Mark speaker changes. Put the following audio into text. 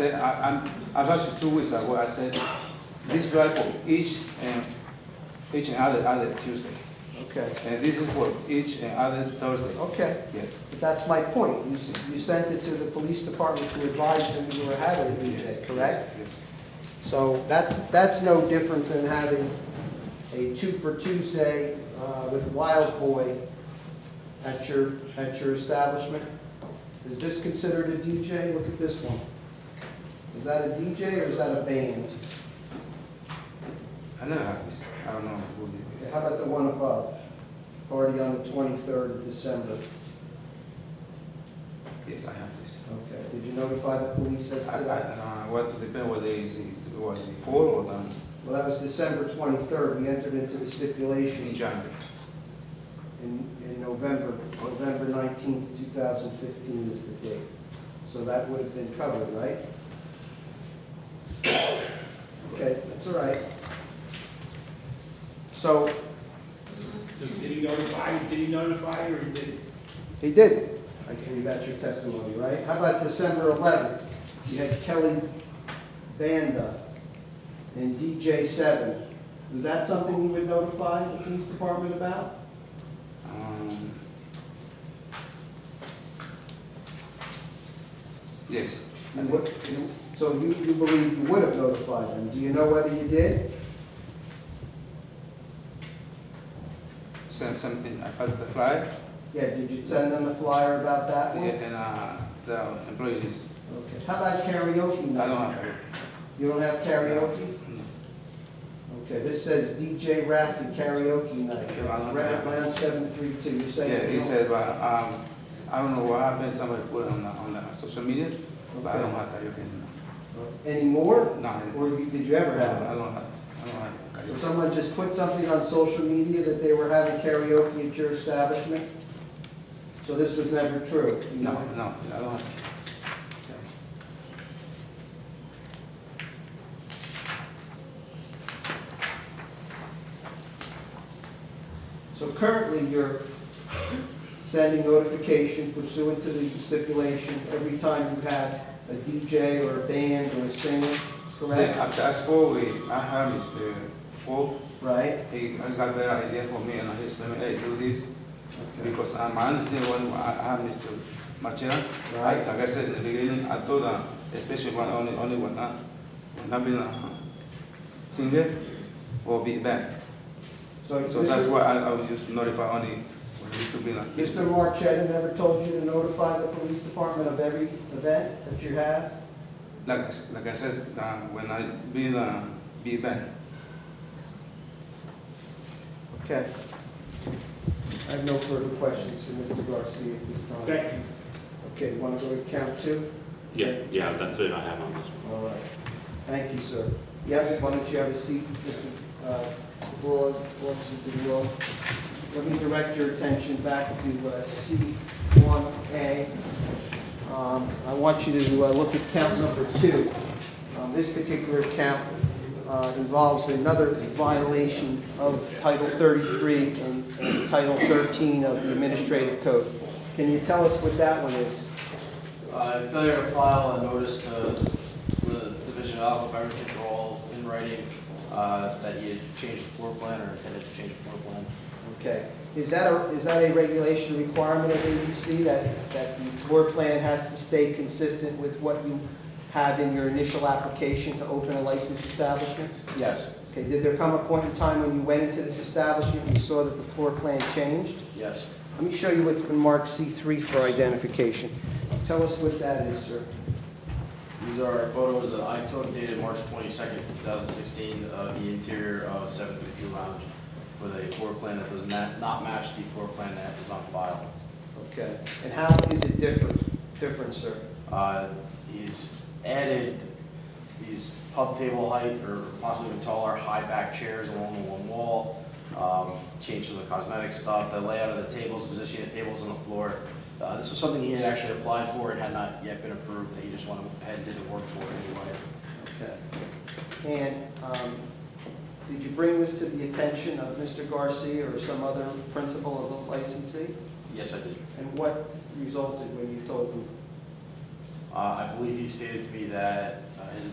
Speaker 1: said, I, I'm, I've had it two weeks ago, uh, I said, this drive for each and, each and other, other Tuesday.
Speaker 2: Okay,
Speaker 1: And this is for each and other Thursday.
Speaker 2: okay,
Speaker 1: Yes,
Speaker 2: but that's my point. You, s- you sent it to the police department to advise them you were having a DJ, correct?
Speaker 1: yes.
Speaker 2: So that's, that's no different than having a two for Tuesday uh, with Wild Boy at your, at your establishment. Is this considered a DJ? Look at this one. Is that a DJ or is that a band?
Speaker 1: I never had this, I don't know who did this.
Speaker 2: How about the one above? Party on the 23rd of December.
Speaker 1: Yes, I have this.
Speaker 2: Okay, did you notify the police as
Speaker 1: I,
Speaker 2: to
Speaker 1: I,
Speaker 2: that?
Speaker 1: uh, what, depend whether it's, it's- it was before or done
Speaker 2: Well, that was December 23rd, we entered into the
Speaker 1: in
Speaker 2: stipulation
Speaker 1: January.
Speaker 2: in, in November, November 19th, 2015 is the date. So that would have been covered, right? Okay, that's all right. So,
Speaker 3: So Did he notify, did he notify you or he didn't?
Speaker 2: he did, I gave that your testimony, right? How about December 11th? You had Kelly Banda and DJ Seven. Was that something you would notify the police department about?
Speaker 1: Um, Yes.
Speaker 2: And what, you- so you, you believe you would have notified them, do you know whether you did?
Speaker 1: Sent something, I felt the flyer,
Speaker 2: Yeah, did you send them a flyer about that
Speaker 1: yeah,
Speaker 2: one?
Speaker 1: and, uh, the employee list.
Speaker 2: Okay. How about karaoke
Speaker 1: I
Speaker 2: night?
Speaker 1: don't have it.
Speaker 2: You don't have karaoke?
Speaker 1: No.
Speaker 2: Okay, this says DJ Rafi karaoke night,
Speaker 1: Yeah, I don't
Speaker 2: Red
Speaker 1: have-
Speaker 2: Lounge seven three two, you say?
Speaker 1: Yeah, he said, but, um, I don't know what happened, somebody put it on the, on the social media, but I don't have karaoke anymore.
Speaker 2: Anymore?
Speaker 1: No, I
Speaker 2: Uh, Or you- did you ever have
Speaker 1: I
Speaker 2: it?
Speaker 1: don't have, I don't have
Speaker 2: So
Speaker 1: karaoke.
Speaker 2: someone just put something on social media that they were having karaoke at your establishment? So this was never true? you
Speaker 1: No,
Speaker 2: know?
Speaker 1: no, I don't have.
Speaker 2: So currently, you're sending notification pursuant to the stipulation every time you have a DJ or a band or a singer,
Speaker 1: So
Speaker 2: correct?
Speaker 1: after I spoke with, I had Mr. Paul,
Speaker 2: Right?
Speaker 1: He I got better idea for me and he said, hey, do this,
Speaker 2: Okay.
Speaker 1: because uh, my understanding when I I have Mr. Machera, I,
Speaker 2: Right.
Speaker 1: like I said in the beginning, I told him, especially when only, only ah, when I, when I've been a ah, singer or be back.
Speaker 2: So
Speaker 1: So that's
Speaker 2: Mr.
Speaker 1: why I, I was just notify only when he could be like this.
Speaker 2: Mr. Marchetta never told you to notify the police department of every event that you have?
Speaker 1: Like, I s- like I said, uh, when I be, uh, be back.
Speaker 2: Okay. I have no further questions for Mr. Garcia at this time.
Speaker 3: Thank you.
Speaker 2: Okay, want to go to count two?
Speaker 4: Yeah, yeah, that's it I have on this one.
Speaker 2: All right. Thank you, sir. Yeah, why don't you have a seat, Mr. uh, Broad, Officer DeWall? Let me direct your attention back to uh, C1A. Um, I want you to uh, look at count number two. Um, This particular count uh, involves another violation of Title 33 and and Title 13 of the Administrative Code. Can you tell us what that one is?
Speaker 5: Uh, failure to file a notice to the Division of Alcohol Beverage Control in writing, uh, that he had changed the floor plan or intended to change the floor plan.
Speaker 2: Okay, is that a, is that a regulation requirement of ABC, that, that the floor plan has to stay consistent with what you have in your initial application to open a licensed establishment?
Speaker 5: Yes.
Speaker 2: Okay, did there come a point in time when you went into this establishment and you saw that the floor plan changed?
Speaker 5: Yes.
Speaker 2: Let me show you what's been marked C3 for identification. Tell us what that is, sir.
Speaker 5: These are photos that I took dated March twenty-second, two thousand sixteen, of the interior of seven fifty-two lounge with a floor plan that does not, not match the floor plan that is on file.
Speaker 2: Okay, and how is it different, different, sir?
Speaker 5: Uh, He's added these pub table height or possibly even taller high back chairs along the one wall, um, changed some of the cosmetic stuff, the layout of the tables, positioning of tables on the floor. Uh, This was something he had actually applied for and had not yet been approved, that he just went ahead and did the work for anyway.
Speaker 2: Okay. And um, did you bring this to the attention of Mr. Garcia or some other principal of the licensee?
Speaker 5: Yes, I did.
Speaker 2: And what resulted when you told them?
Speaker 5: Uh, I believe he stated to me that uh, his